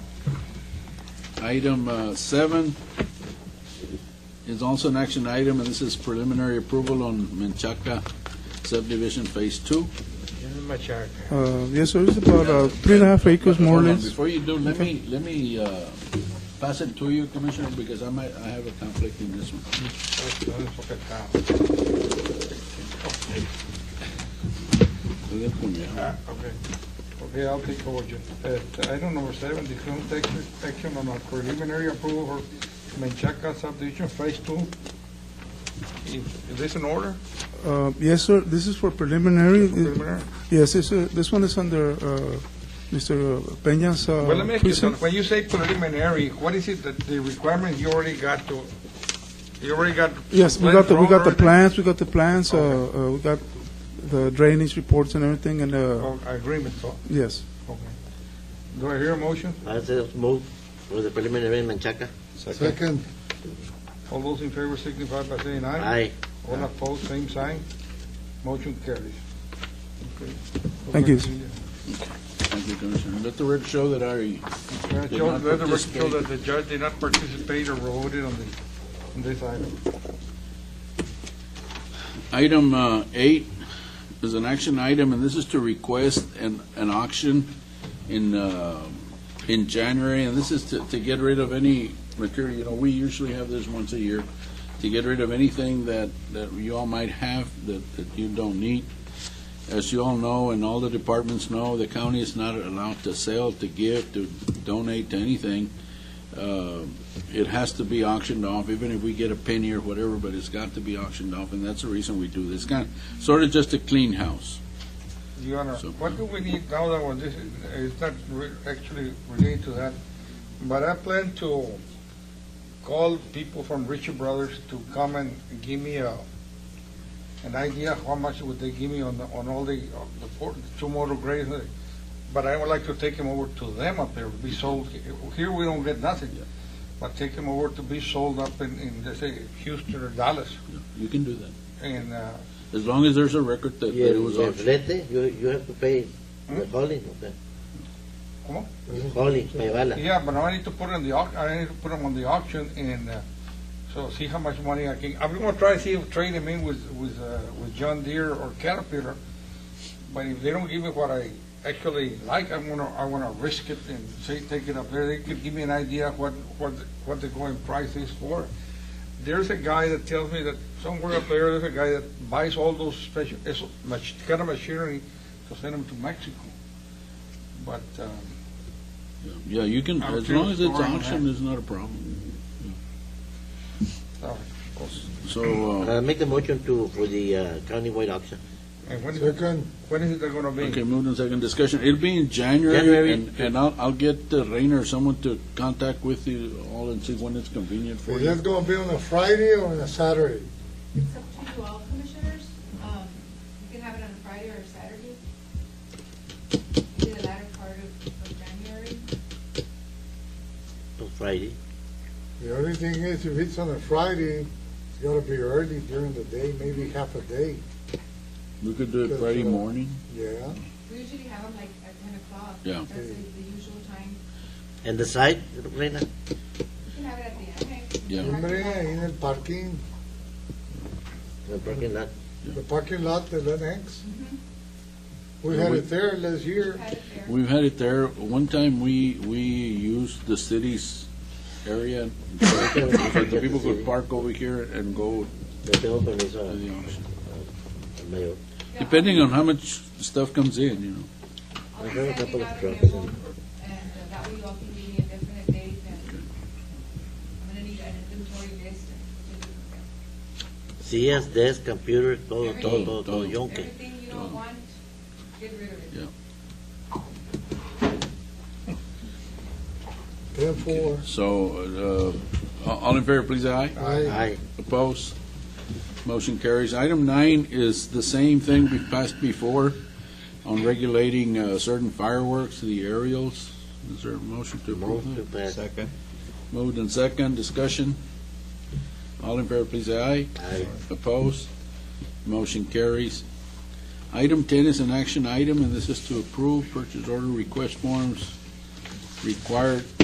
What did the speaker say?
Item uh, seven is also an action item, and this is preliminary approval on Menchaca subdivision phase two. This is my chart. Uh, Yes, sir, it's about uh, three and a half acres more or Hold on, less. Before you do, let me, let me uh, pass it to you, Commissioner, because I might, I have a conflict in this one. Okay. Okay, I'll take over, Uh, Judge. At item number seven, discussion take action on a preliminary approval for Menchaca subdivision phase two. Is is this in order? Uh, Yes, sir, this is for preliminary. Preliminary? Yes, this, uh, this one is under uh, Mr. Peña's uh, Well, let me ask you something. precinct. When you say preliminary, what is it that the requirement you already got to, you already got? Yes, we got the, we got the plans plans, we got the plans, uh, uh, we got the drainage reports and everything, and, drawn uh, already? Oh, Agreement, so, yes. okay. Do I hear a motion? I say move for the preliminary in Manchaca. Second, All those in favor signify by saying aye. Aye. All opposed, same sign. Motion carries. Okay. Thank you. Thank you, Commissioner. Let the record show that I Uh, Did Joe, not Let the record show participate. that the judge did not participate or voted on the, on this item. Item uh, eight is an action item, and this is to request an, an auction in, uh, in January, and this is to, to get rid of any material, you know, we usually have this once a year, to get rid of anything that, that you all might have that, that you don't need. As you all know, and all the departments know, the county is not allowed to sell, to give, to donate to anything. Uh, it has to be auctioned off, even if we get a penny or whatever, but it's got to be auctioned off, and that's the reason we do this. Kind, sort of just a clean house. Your Honor, So- what do we need now that was, this is, it's not re- actually related to that, but I plan to call people from Richard Brothers to come and give me a, an idea how much would they give me on, the- on all the, uh, the four, two motor grades. uh, But I would like to take them over to them up there, be sold, here we don't get nothing. But take them over to be sold up in, in, let's say, Houston or Dallas, You can do that. and, uh, As long as there's a record that that it was You- you auctioned. flete, you, you have to pay the Hmm? hauling, okay? ¿Cómo? Hauling, pay bala. Yeah, but now I need to put it on the, au- I need to put them on the auction and, uh, so see how much money I can, I'm gonna try to see if trade them in with, with, uh, with John Deere or Caterpillar. But if they don't give me what I actually like, I'm gonna, I wanna risk it and say, take it up there. They could give me an idea what, what, the- what the going price is for. There's a guy that tells me that somewhere up there, there's a guy that buys all those special, it's mach- kind of machinery to send them to Mexico. But, um, Yeah, you can, I'm as long as it's sure it's auctioned, it's not a problem. so- So, uh, Uh, make a motion to, for the uh, countywide auction. and when is it second, When is it they're gonna okay, be? moved and second discussion. It'll be in January. January, and, and I'll, I'll get uh, Rainer or someone to contact with you all and see when it's convenient for is you. that gonna be on a Friday or on a Saturday? It's up to you all commissioners. Um, You can have it on a Friday or a Saturday. Maybe the latter part of of January. on Friday. The only thing is, if it's on a Friday, it's gotta be early during the day, maybe half a day, We could do it Friday morning. yeah? We usually have them like at ten o'clock. Yeah. That's the the usual time. And the site, Reina? You can have it at the annex. Yeah. Hombre, ahí en el parking, The parking lot. the parking lot, the Lennox. Mhm. We Yeah, had we- it there last year. Had it there. We've had it there. One time, we, we used the city's area, so the people could park over here and go The open is to the uh, auction. mayor. Yeah, Depending on how much stuff comes in, you know. I'll be I heard a sending couple of out a trucks. memo, And uh, that way you all can give me a definite date and I'm gonna need an inventory list and CS, desk, computer, Oh, todo, todo, Everything. todo, todo, yonke. everything you don't want, get rid of it. Therefore, So, uh, all all in favor, please, aye. I, Aye. Opposed? Motion carries. Item nine is the same thing we passed before on regulating uh, certain fireworks, the aerials. Is there a motion to Move approve to that? pass. Moved and second, discussion. All in favor, please, aye. Aye. Opposed? Motion carries. Item 10 is an action item, and this is to approve purchase order request forms required